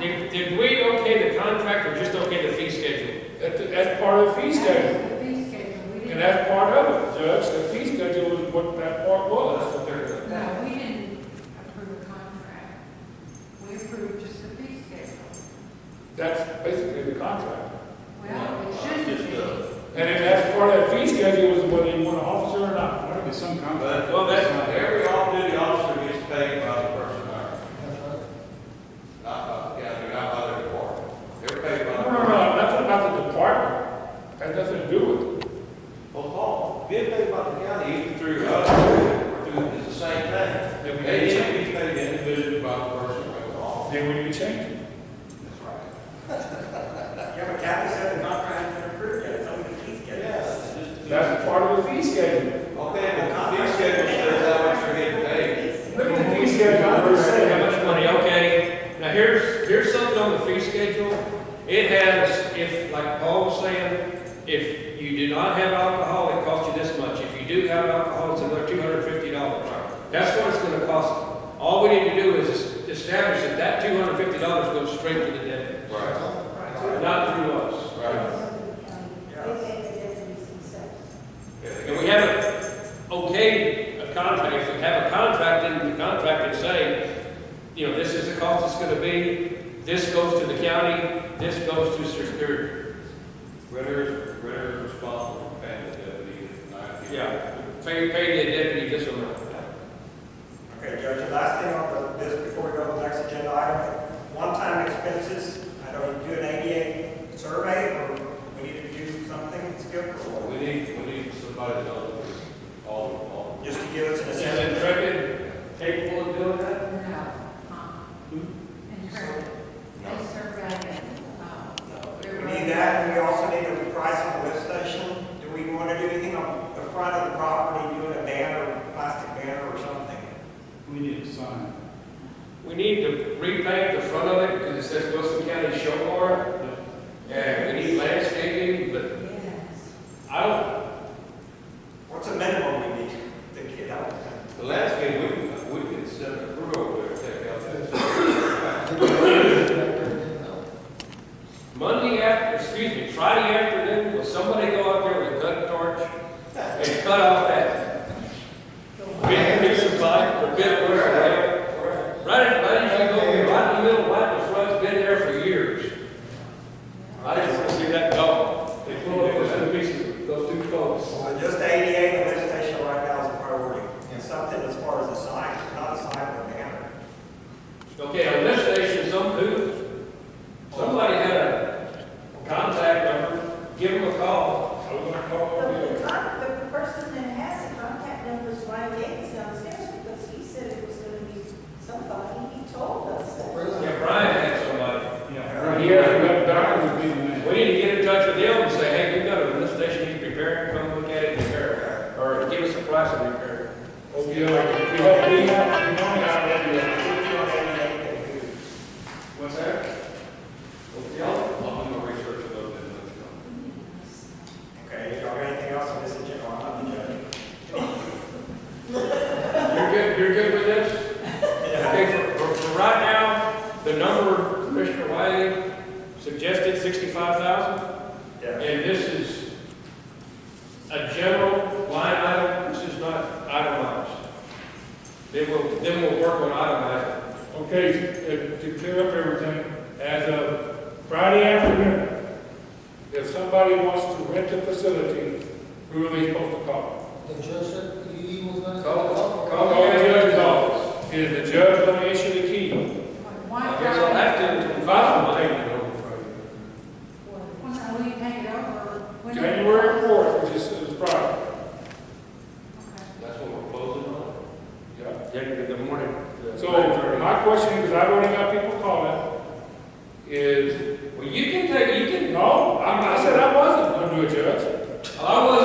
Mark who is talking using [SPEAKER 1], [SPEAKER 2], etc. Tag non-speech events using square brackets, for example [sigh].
[SPEAKER 1] did we okay the contract or just okay the fee schedule?
[SPEAKER 2] That, that's part of the fee schedule,
[SPEAKER 3] The fee schedule, we
[SPEAKER 2] and
[SPEAKER 3] didn't,
[SPEAKER 2] that's part of it, Judge, the fee schedule is what that part was, that they're-
[SPEAKER 3] no, we didn't approve a contract. We approved just the fee schedule.
[SPEAKER 2] that's basically the contract.
[SPEAKER 3] Well, it shouldn't be.
[SPEAKER 2] And if that's part of that fee schedule, is whether you want an officer or not.
[SPEAKER 4] There's some contract.
[SPEAKER 5] Well, that's, every off-duty officer gets paid by the person hired. Not by the county, not by their department. They're paid
[SPEAKER 2] No,
[SPEAKER 5] by. the
[SPEAKER 2] no, no, nothing about the department, has nothing to do with it.
[SPEAKER 5] Well, Paul, being paid by the county, either through us or through, is the same
[SPEAKER 2] Yeah, we
[SPEAKER 5] thing.
[SPEAKER 2] did
[SPEAKER 5] They
[SPEAKER 2] check.
[SPEAKER 5] should be paid individually by the person right along.
[SPEAKER 2] Then we need to change it.
[SPEAKER 5] That's right.
[SPEAKER 6] [laughs] Yeah, but Kathy said the contract had been approved yet, so we can please get it.
[SPEAKER 5] Yes. it's just-
[SPEAKER 2] That's part of the fee schedule.
[SPEAKER 5] Okay, well, the fee schedule says how much you're getting paid.
[SPEAKER 2] Look at the fee schedule, I'm just
[SPEAKER 1] How
[SPEAKER 2] saying.
[SPEAKER 1] much money, okay, now here's, here's something on the fee schedule, it has, if, like Paul was saying, if you do not have alcohol, it costs you this much, if you do have alcohol, it's another two hundred and fifty dollars. That's what it's gonna cost, all we need to do is establish that that two hundred and fifty dollars goes straight to the debtor,
[SPEAKER 5] Right,
[SPEAKER 1] not through us.
[SPEAKER 5] right.
[SPEAKER 1] And we have a, okay, a contract, if we have a contract, then the contract can say, you know, this is the cost it's gonna be, this goes to the county, this goes to Superior.
[SPEAKER 5] Ritter, Ritter is responsible for paying the deputy nine. people.
[SPEAKER 1] Yeah. Pay, pay the deputy this amount.
[SPEAKER 6] Okay, Judge, the last thing on the, this before we go to the next agenda item, one-time expenses, I know you do an ADA survey, or we need to do something, it's good
[SPEAKER 5] Well,
[SPEAKER 6] for,
[SPEAKER 5] We need, we need somebody to help us all, all.
[SPEAKER 6] just to give us an
[SPEAKER 1] Is
[SPEAKER 6] assessment.
[SPEAKER 1] Intrepid capable of doing that?
[SPEAKER 3] No, uh,
[SPEAKER 1] Hmm?
[SPEAKER 3] in terms, they survey, uh,
[SPEAKER 6] We need that, and we also need a price on the lift station. Do we want to do anything on the front of the property, doing a banner, plastic banner or something?
[SPEAKER 4] We need to sign.
[SPEAKER 1] We need to repaint the front of it, because it says Wilson County Show Bar, and we need landscaping, but
[SPEAKER 3] Oh, yes.
[SPEAKER 1] I don't,
[SPEAKER 6] What's a minimum we need to get out?
[SPEAKER 5] The last game, we, can- we can send a crew over there to take out that. [coughs]
[SPEAKER 1] Monday after, excuse me, Friday afternoon, will somebody go out there with a gun torch and cut off that? Big piece of pipe, or bit of wire, right? Right, in- right, as you go in, right in the middle, right in the front, it's been there for years. I just want to see that gone. They pull up those two pieces, those two poles.
[SPEAKER 6] So just ADA, the lift station right now is a priority. And something as far as a sign, not a sign, but a banner.
[SPEAKER 1] Okay, on this station, some who, somebody had a contact number, give them a call.
[SPEAKER 2] I was gonna call all the-
[SPEAKER 7] The con- the person that has the contact numbers, Ryan Gates downstairs, because he said it was gonna be somebody, he told us that.
[SPEAKER 1] Yeah, Brian had somebody.
[SPEAKER 4] Yeah.
[SPEAKER 2] He hasn't got down with me.
[SPEAKER 1] We need to get in touch with them and say, hey, we've got a lift station you need to repair, it. come look at it, and repair, it. or give us a price and repair.
[SPEAKER 2] Oh, yeah, like, we have, we have, we don't have any of that.
[SPEAKER 4] What's that?
[SPEAKER 5] Yeah, I'll, I'll do my research about that. next time.
[SPEAKER 6] Okay, y'all got anything else on this agenda? I'm not the judge.
[SPEAKER 1] it. You're good, you're good with this? [laughs] Okay, for, for- for right now, the number Commissioner Wiley suggested sixty-five thousand,
[SPEAKER 6] Yeah.
[SPEAKER 1] and this is a general line item, this is not itemized. Then we'll, then we'll work on itemizing.
[SPEAKER 2] Okay, to- to clear up everything, as of Friday afternoon, if somebody wants to rent the facility, who are they supposed to call?
[SPEAKER 8] The judge said he was gonna.
[SPEAKER 1] Call, call,
[SPEAKER 2] Call
[SPEAKER 1] call.
[SPEAKER 2] the judge's office. Is the judge going to issue the key?
[SPEAKER 3] One
[SPEAKER 1] I guess I'll
[SPEAKER 3] guy,
[SPEAKER 1] have to advise my
[SPEAKER 3] when we take it over. when-
[SPEAKER 2] January fourth, which is is Friday.
[SPEAKER 3] Okay.
[SPEAKER 5] That's what we're closing on.
[SPEAKER 2] Yeah.
[SPEAKER 1] Yeah, the morning. the
[SPEAKER 2] So
[SPEAKER 1] 9:30.
[SPEAKER 2] my question, because I've already got people calling, is,
[SPEAKER 1] Well, you can take, you can,
[SPEAKER 2] no, I I said I wasn't going to do it, Judge.
[SPEAKER 1] I was